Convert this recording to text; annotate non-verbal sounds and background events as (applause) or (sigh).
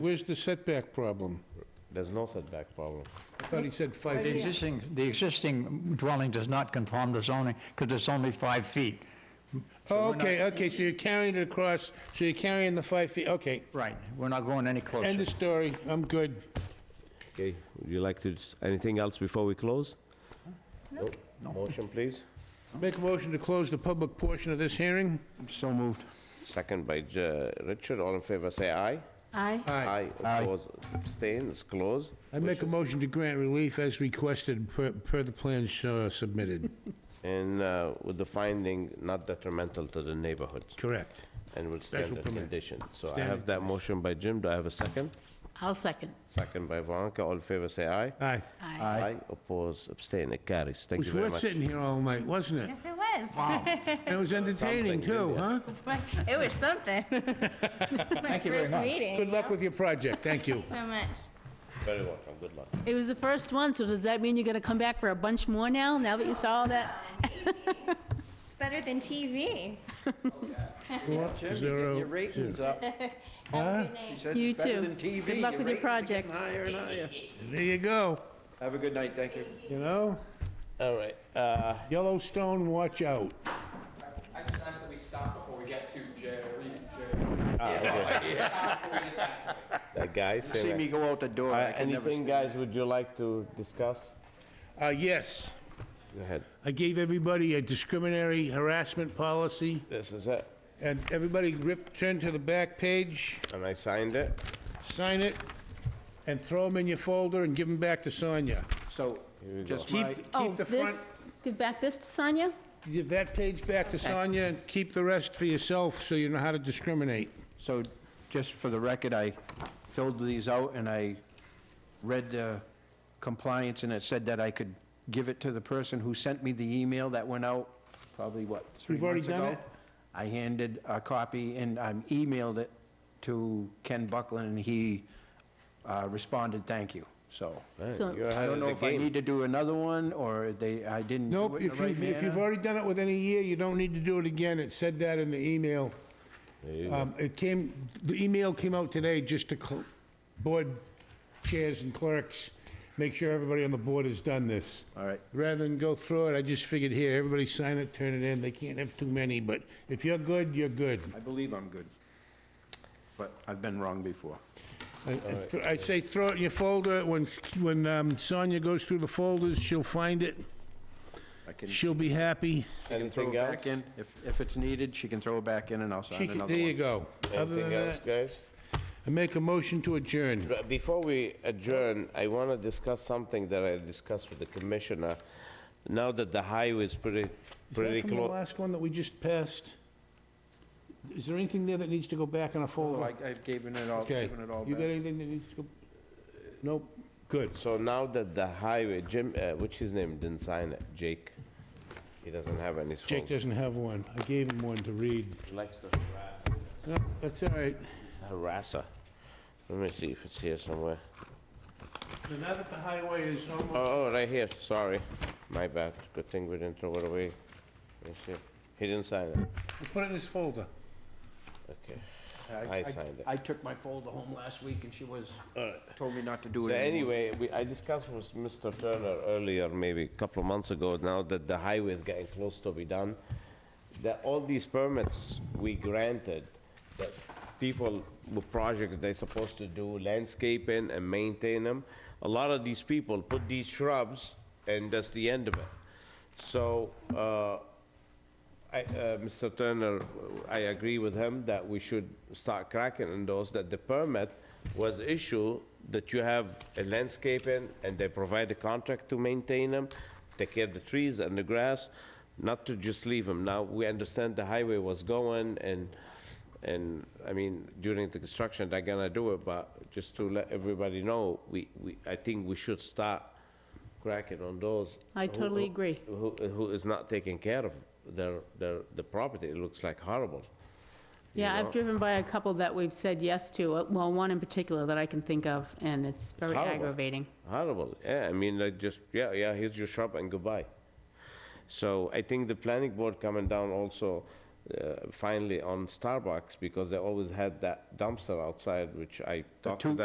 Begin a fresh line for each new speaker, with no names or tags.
Where's the setback problem?
There's no setback problem.
I thought he said five
The
feet.
existing, the existing dwelling does not conform to zoning because it's only five feet.
Oh, okay, okay, so you're carrying it across, so you're carrying the five feet, okay.
Right, we're not going any
End
closer.
of story, I'm good.
Okay, would you like to, s- anything else before we close? No. Motion, please.
Make a motion to close the public portion of this hearing?
So moved.
Second by J- Richard, all in favor, say aye.
Aye.
Aye.
Aye.
Oppose, abstain, it's closed.
I make a motion to grant relief as requested per, per the plans uh, submitted.
And uh, with the finding not detrimental to the neighborhood,
Correct.
and with standard
permit.
condition. So I have
Standard
that motion by Jim, do I have a second?
I'll second.
Second by Veronica, all in favor, say aye.
Aye.
Aye.
Aye, oppose, abstain, it carries,
It
thank
was
you very
worth
much.
sitting here all night, wasn't it?
Yes, it was. (laughs)
And it was entertaining too,
Something,
huh?
But It
(laughs)
was something. (laughs)
Thank you very
First
much.
meeting.
Good luck with your project, thank
(laughs)
you.
So much.
Very welcome, good luck.
It was the first one, so does that mean you're gonna come back for a bunch more now, now that you saw all that?
It's better than TV.
Zero.
ratings up. She said
You
it's better
too.
than TV.
Good luck with your
ratings are
project.
getting higher and higher.
There you go,
Have a good night, thank you.
you know?
All right, uh,
Yellowstone, watch out.
I just ask that we stop before we get to Jerry, Jerry.
that guy saying
See
that-
me go out the door, I
Uh,
can never
Anything, guys, would you like to discuss?
Uh, yes,
Go ahead.
I gave everybody a discriminatory harassment policy,
This is it,
and everybody rip, turn to the back page,
and I signed it.
sign it, and throw them in your folder and give them back to Sonia.
So, just
Keep,
my,
Oh,
keep the front,
this. Give back this to Sonia?
give that page back to Sonia, and keep the rest for yourself, so you know how to discriminate.
so, just for the record, I filled these out and I read the compliance and it said that I could give it to the person who sent me the email that went out probably, what, three
You've already
months ago?
done it?
I handed a copy and I emailed it to Ken Buckland and he uh, responded, thank you, so.
Man,
So-
you're
I
ahead
don't
of
know
the
if I
game.
need to do another one, or they, I didn't do
Nope,
it in
if
the right
you've, if you've
manner.
already done it within a year, you don't need to do it again, it said that in the email. Um, It came, the email came out today just to cl- board chairs and clerks, make sure everybody on the board has done this.
All right.
Rather than go through it, I just figured here, everybody sign it, turn it in, they can't have too many, but if you're good, you're good.
I believe I'm good, but I've been wrong before.
I- I I say throw it in your folder, when, when um, Sonia goes through the folders, she'll find it,
I can she
she'll be happy.
can throw it
Anything else?
back in, if, if it's needed, she can throw it back in and I'll
She
sign
can,
another
there you
one.
go. Other than
Anything else,
that,
guys?
I make a motion to adjourn.
But Before we adjourn, I want to discuss something that I discussed with the commissioner. Now that the highway is pretty, pretty
Is that from the
close.
last one that we just passed? Is there anything there that needs to go back in a
Oh,
folder?
I- I've given it all,
Okay,
given it all
you got
back.
anything that needs to go? Nope, good.
So now that the highway, Jim, uh, which his name, didn't sign it, Jake. He doesn't have any.
Jake
folder.
doesn't have one. I gave him one to read.
He Likes to harass,
No, that's all right.
harasser. Let me see if it's here somewhere.
So Now that the highway is
Uh,
almost,
Oh, oh, right here, sorry. My bad. Good thing we didn't throw it away. Let me see. He didn't sign it.
We'll put it in his folder.
Okay. I signed it. Uh,
I took my folder home last week and she was, told me not to do
So
it anymore.
anyway, we, I discussed with Mr. Turner earlier, maybe a couple of months ago, now that the highway is getting close to be done, that all these permits we granted, that people with projects they're supposed to do landscaping and maintain them, a lot of these people put these shrubs, and that's the end of it. So, uh, I, uh, Mr. Turner, I agree with him that we should start cracking on those, that the permit was issued, that you have a landscaping, and they provide a contract to maintain them, take care of the trees and the grass, not to just leave them. Now, we understand the highway was going, and, and, I mean, during the construction, they're gonna do it, but just to let everybody know, we, we, I think we should start cracking on those. Oh,
I
who-
totally
who-
agree.
who, who is not taking care of their, their, the property, it looks like horrible.
Yeah,
know.
I've driven by a couple that we've said yes to, uh, well, one in particular that I can think of, and it's very
Horrible.
aggravating.
Horrible, yeah, I mean, like, just, yeah, yeah, here's your shop and goodbye. So I think the planning board coming down also, uh, finally on Starbucks because they always had that dumpster outside, which I talked to
two-
them